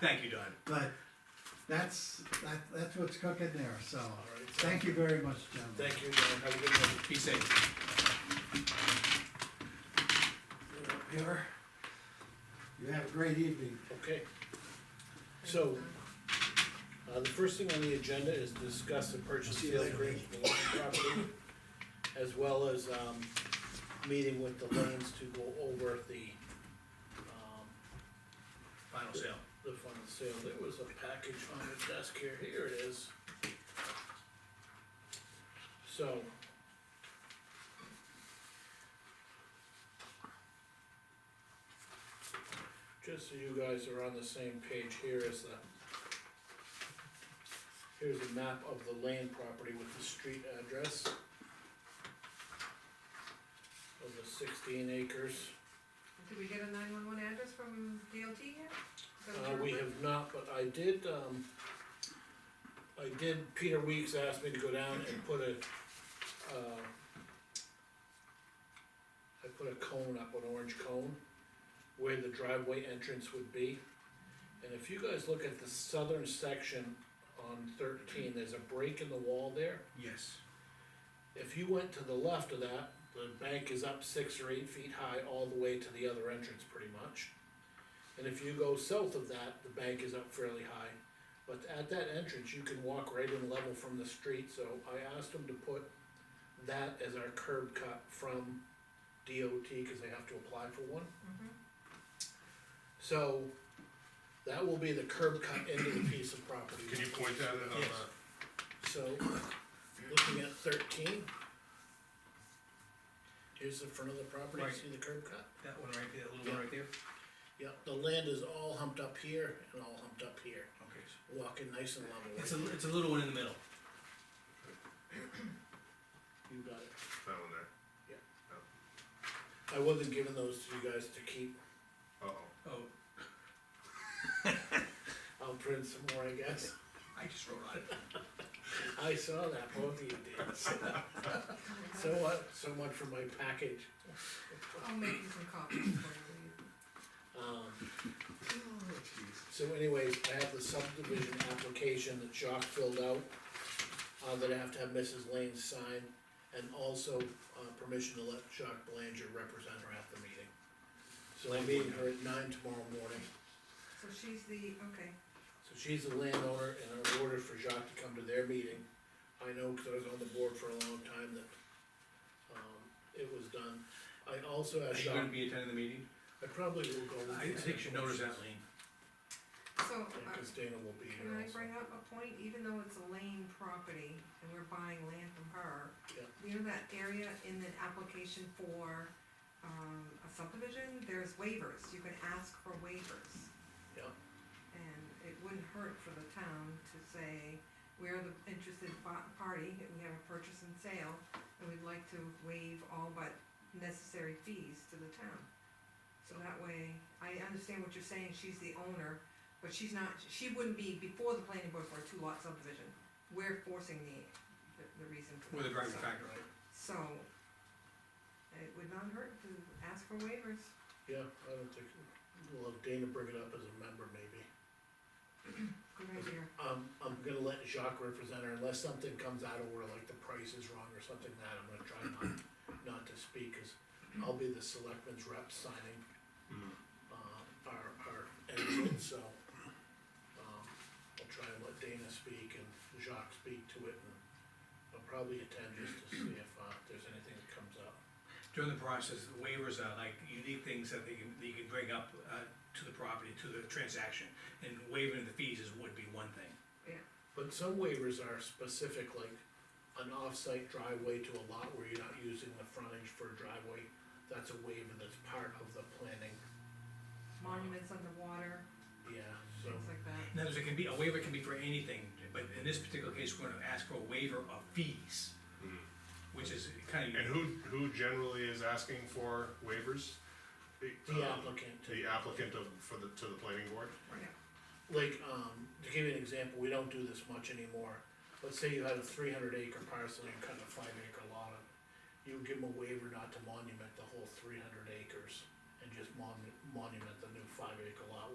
Thank you, Don. But that's, that, that's what's cooking there, so, right, so- thank you very much, gentlemen. Thank you, man, have a good night. Be safe. You're up here. You have a great evening. Okay. So, uh, the first thing on the agenda is discuss the purchase See you sale later, agreement for the Lincoln property, as well as, um, meeting with the lanes to go over the, um, Final sale. the final sale. There was a package on the desk here, here it is. So. Just so you guys are on the same page, here is the. Here's a map of the land property with the street address. Of the sixteen acres. Did we get a nine-one-one address from DLT yet? Is that what Uh, you're we referring- have not, but I did, um, I did, Peter Weeks asked me to go down and put a, uh, I put a cone up, an orange cone, where the driveway entrance would be. And if you guys look at the southern section on thirteen, there's a break in the wall there. Yes. If you went to the left of that, the bank is up six or eight feet high all the way to the other entrance pretty much. And if you go south of that, the bank is up fairly high. But at that entrance, you can walk right in level from the street, so I asked them to put that as our curb cut from DOT, cause they have to apply for one. So, that will be the curb cut into the piece of property. Can you point that at, Yes. uh, So, looking at thirteen. Here's the front of the property, Right. see the curb cut? That one right there, that little one right there? Yeah, the land is all humped up here and all humped up here, Okay. so walking nice and level. It's a, it's a little one in the middle. You got it. that one there? I wasn't giving those to you guys to keep, Uh-oh. Oh, I'll print some more, I guess. I just wrote on it. I saw that, both of you did. So what, so much for my package. I'll make you some copies for you. Um, Oh, So anyways, I have the subdivision application that Jacques filled out, uh, that I have to have Mrs. Lane sign, and also, uh, permission to let Jacques Belanger represent her at the meeting. So I'm meeting her at nine tomorrow morning, So she's the, okay, so she's the landowner, and I ordered for Jacques to come to their meeting. I know, cause I was on the board for a long time, that, um, it was done. I also Are asked you gonna Jacques, be attending the meeting? I probably will go. with I I the think you should notice that, Lean. same so, motions, uh, Cause Dana will be here can I also. bring up a point, even though it's a lane property and we're buying land from her? Yeah. You know that area in the application for, um, a subdivision, there's waivers, you can ask for waivers. Yeah. And it wouldn't hurt for the town to say, we're the interested pa- party, we have a purchase and sale, and we'd like to waive all but necessary fees to the town. So that way, I understand what you're saying, she's the owner, but she's not, she wouldn't be before the planning board for a two-lot subdivision. We're forcing the, the, the reason for With that. a driving so- factor. So, it would not hurt to ask for waivers. Yeah, I don't think, we'll have Dana bring it up as a member maybe. Good idea. Um, I'm gonna let Jacques represent her unless something comes out of where like the price is wrong or something that, I'm gonna try not, not to speak, cause I'll be the selectman's rep signing. Uh, our, our entrance, so, um, I'll try and let Dana speak and Jacques speak to it and I'll probably attend just to see if, uh, there's anything that comes up. During the process, the waivers are like unique things that they can, that you can bring up, uh, to the property, to the transaction. And waiving the fees is, would be one thing. But some waivers are specific, like an off-site driveway to a lot where you're not using the frontage for a driveway. That's a waiver that's part of the planning, Monuments underwater, yeah, so, things like that. In other words, it can be, a waiver can be for anything, but in this particular case, we're gonna ask for a waiver of fees. Which is kinda Hmm. And unique. who, who generally is asking for waivers? the um, applicant. The applicant of, for the, to the planning board? Like, um, to give you an example, we don't do this much anymore. Let's say you had a three hundred acre parcel and you cut a five acre lot of, you would give them a waiver not to monument the whole three hundred acres and just mon- monument the new five acre lot